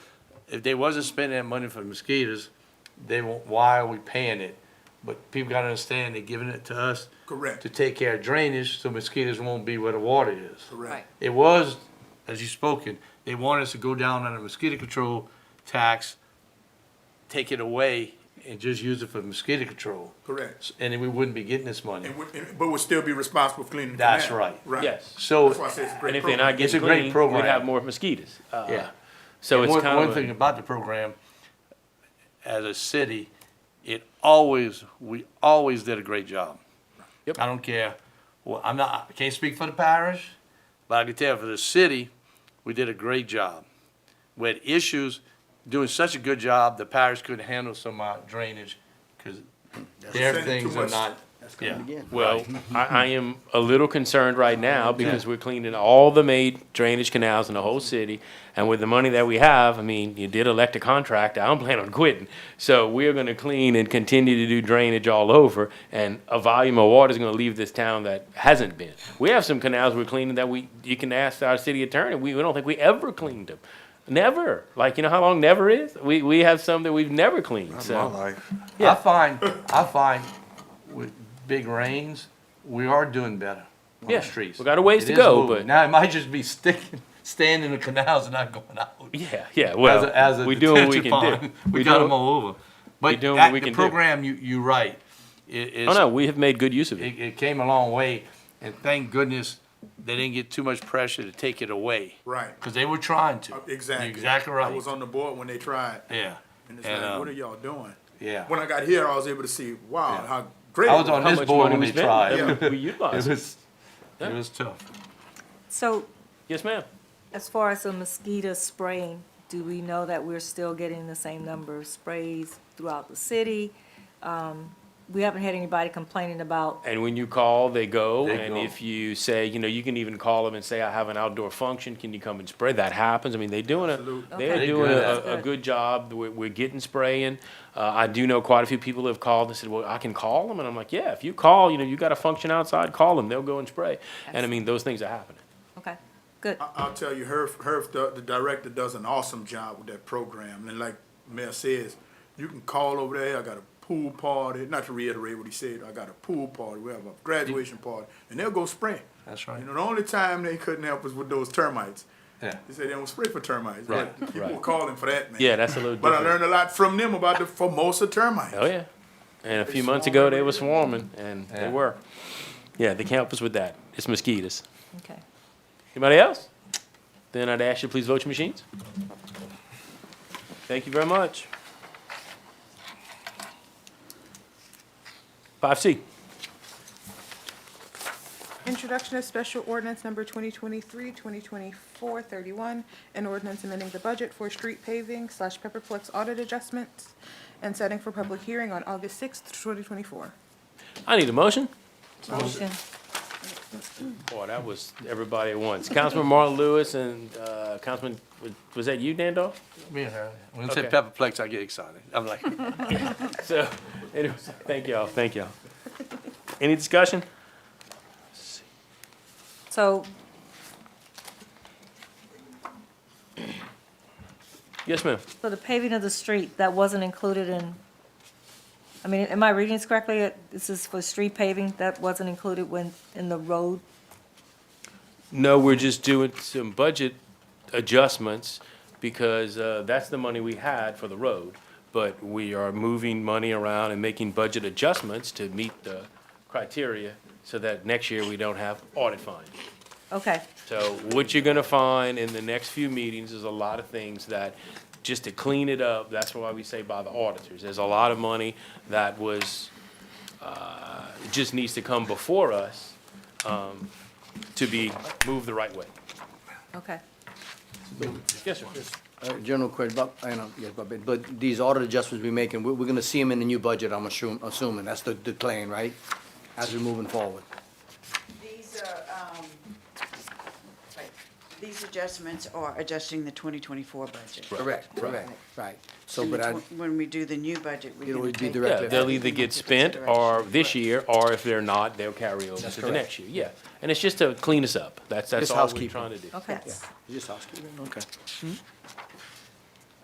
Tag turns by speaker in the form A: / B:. A: if they wasn't spending that money for mosquitoes, they won't, why are we paying it? But people gotta understand they're giving it to us
B: Correct.
A: to take care of drainage, so mosquitoes won't be where the water is.
B: Correct.
A: It was, as you spoken, they wanted us to go down on a mosquito control tax, take it away and just use it for mosquito control.
B: Correct.
A: And then we wouldn't be getting this money.
B: And would, and- but would still be responsible for cleaning the canal.
A: That's right.
B: Right.
C: Yes.
A: So-
B: That's why I said it's a great
C: And if they're not
B: program.
A: It's a
C: getting
A: great
C: clean,
A: program.
C: we'd have more mosquitoes. Uh,
A: Yeah.
C: So it's
A: one,
C: kind
A: one
C: of,
A: thing
C: a-
A: about the program, as a city, it always we always did a great job.
C: Yep.
A: I don't care. Well, I'm not. I can't speak for the parish, but I can tell for the city, we did a great job. We had issues doing such a good job, the parish couldn't handle some uh, drainage because their
B: Send it to
A: things are
B: us.
A: not. yeah.
C: well, I, I am a little concerned right now because we're cleaning all the made drainage canals in the whole city. And with the money that we have, I mean, you did elect a contractor, I don't plan on quitting. So we're gonna clean and continue to do drainage all over and a volume of water is gonna leave this town that hasn't been. We have some canals we're cleaning that we, you can ask our city attorney, we, we don't think we ever cleaned them. Never, like, you know how long never is? We, we have some that we've never cleaned, so.
A: I find, I find with big rains, we are doing better on
C: Yeah,
A: the streets.
C: we got a ways
A: It
C: to
A: is
C: go,
A: moving.
C: but-
A: Now, it might just be sticking, staying in the canals and not going out.
C: Yeah, yeah.
A: As
C: Well,
A: a, as a
C: we do what we
A: detention
C: can do.
A: pond. We got
C: do-
A: them all over. But
C: doing what
A: that,
C: we
A: the
C: can do.
A: program, you, you right, it,
C: Oh
A: it's,
C: no, we have made good use of it.
A: it, it came a long way. And thank goodness, they didn't get too much pressure to take it away,
B: Right.
A: because they were trying to.
B: Uh,
A: You're
B: Exactly.
A: Exactly
B: I was
A: right,
B: on the board when they tried.
A: yeah.
B: And it's
A: And,
B: like,
A: um,
B: what are y'all doing?
A: yeah.
B: When I got here, I was able to see, wow,
A: Yeah.
B: how great.
A: I was
B: it
A: on
C: How
A: this
C: much
A: board
C: money
A: when
C: we
A: they
C: spent
A: tried.
B: Yeah.
C: that we
A: It
C: utilized.
A: was, it
C: Yeah.
A: was tough.
D: So
C: Yes, ma'am.
D: as far as the mosquito spraying, do we know that we're still getting the same number of sprays throughout the city? Um, We haven't had anybody complaining about,
C: And when you call, they go.
A: They
C: and
A: go.
C: if you say, you know, you can even call them and say, I have an outdoor function. Can you come and spray? That happens. I mean, they're doing a
B: Absolutely.
C: they're
D: Okay. They
C: doing
A: good
C: a,
D: at it.
C: a, a good job. We're, we're getting spraying. Uh, I do know quite a few people have called and said, well, I can call them. And I'm like, yeah, if you call, you know, you got a function outside, call them. They'll go and spray. And I mean, those things are happening.
D: okay, good.
B: I- I'll tell you, Herb, Herb, the, the director does an awesome job with that program, and like Mayor says, you can call over there, I got a pool party, not to reiterate what he said, I got a pool party, we have a graduation party, and they'll go spray.
A: That's right.
B: You know, the only time they couldn't help us with those termites.
A: Yeah.
B: They said they don't spray for termites, but
A: Right,
B: people
C: right.
B: were calling for that, man.
C: Yeah, that's a little
B: But I
C: different.
B: learned a lot from them about the Formosa termites.
C: Oh yeah, and a few months ago they were swarming, and
A: Yeah.
C: they were. Yeah, they can't help us with that. It's mosquitoes.
D: Okay.
C: Anybody else? Then I'd ask you to please vote your machines. Thank you very much. Five C.
E: Introduction of special ordinance number 2023, 2024, 31, an ordinance amending the budget for street paving slash Pepperplex audit adjustments and setting for public hearing on August 6th, 2024.
C: I need a motion.
D: Motion.
C: Boy, that was everybody at once. Councilman Marlon Lewis and uh, Councilman, was- was that you, Dandoff?
A: Me and her. When I say
C: Okay.
A: Pepperplex, I get excited. I'm like,
C: So, anyway, thank y'all, thank y'all. Any discussion?
D: So
C: Yes, ma'am.
D: for the paving of the street, that wasn't included in, I mean, am I reading this correctly? Uh, This is for street paving, that wasn't included when, in the road?
C: No, we're just doing some budget adjustments because uh, that's the money we had for the road. But we are moving money around and making budget adjustments to meet the criteria so that next year we don't have audit fines.
D: Okay,
C: So what you're gonna find in the next few meetings is a lot of things that, just to clean it up, that's why we say by the auditors. There's a lot of money that was, uh, just needs to come before us, um, to be moved the right way.
D: okay.
C: Yes, sir.
F: Uh, General question, but, I know, yes, but, but these audit adjustments we're making, we're, we're gonna see them in the new budget, I'm assuming, assuming, that's the, the plan, right? As we're moving forward.
G: These are, um, right, these adjustments are adjusting the 2024 budget.
F: Correct, correct, right. So,
G: And
F: but I,
G: the tw- When we do the new budget, we're
F: It'll be
G: going to take.
F: direct-
C: Yeah, they'll either get spent or this year, or if they're not, they'll carry over
F: That's
C: to the
F: correct.
C: next year, yeah. And it's just to clean us up, that's, that's
F: Just
C: all we're
F: housekeeping.
C: trying to do.
D: Okay.
F: yeah, just housekeeping, okay.